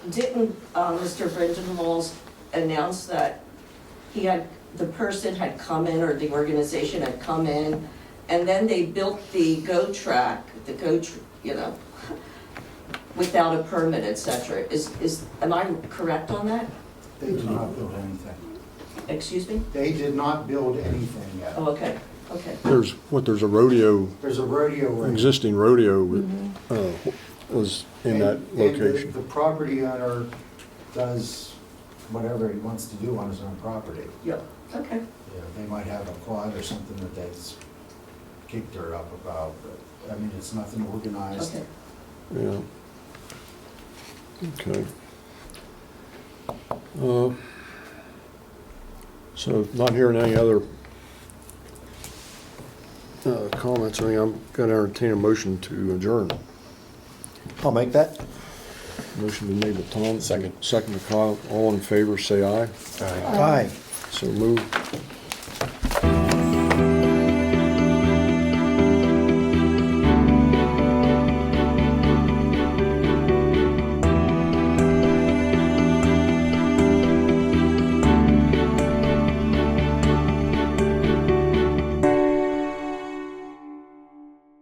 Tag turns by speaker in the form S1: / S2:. S1: Didn't uh, Mr. Brendan Walls announce that he had, the person had come in, or the organization had come in, and then they built the GO track, the GO, tr- you know, without a permit, et cetera? Is, is, am I correct on that?
S2: They did not build anything.
S1: Excuse me?
S2: They did not build anything yet.
S1: Oh, okay, okay.
S3: There's, what, there's a rodeo,
S2: There's a rodeo ring.
S3: existing rodeo that, uh, was in that
S2: And- and the-
S3: location.
S2: The property owner does whatever he wants to do on his own property.
S1: Yeah, okay.
S2: You know, They might have a quad or something that they've kicked dirt up about, but, I mean, it's nothing organized.
S1: Okay.
S3: Yeah. Okay. Uh, So not hearing any other uh, comments, I think I'm going to entertain a motion to adjourn.
S4: I'll make that.
S3: Motion been made by Tom. Second. Second by Kyle. All in favor, say aye.
S4: Aye.
S3: So moved.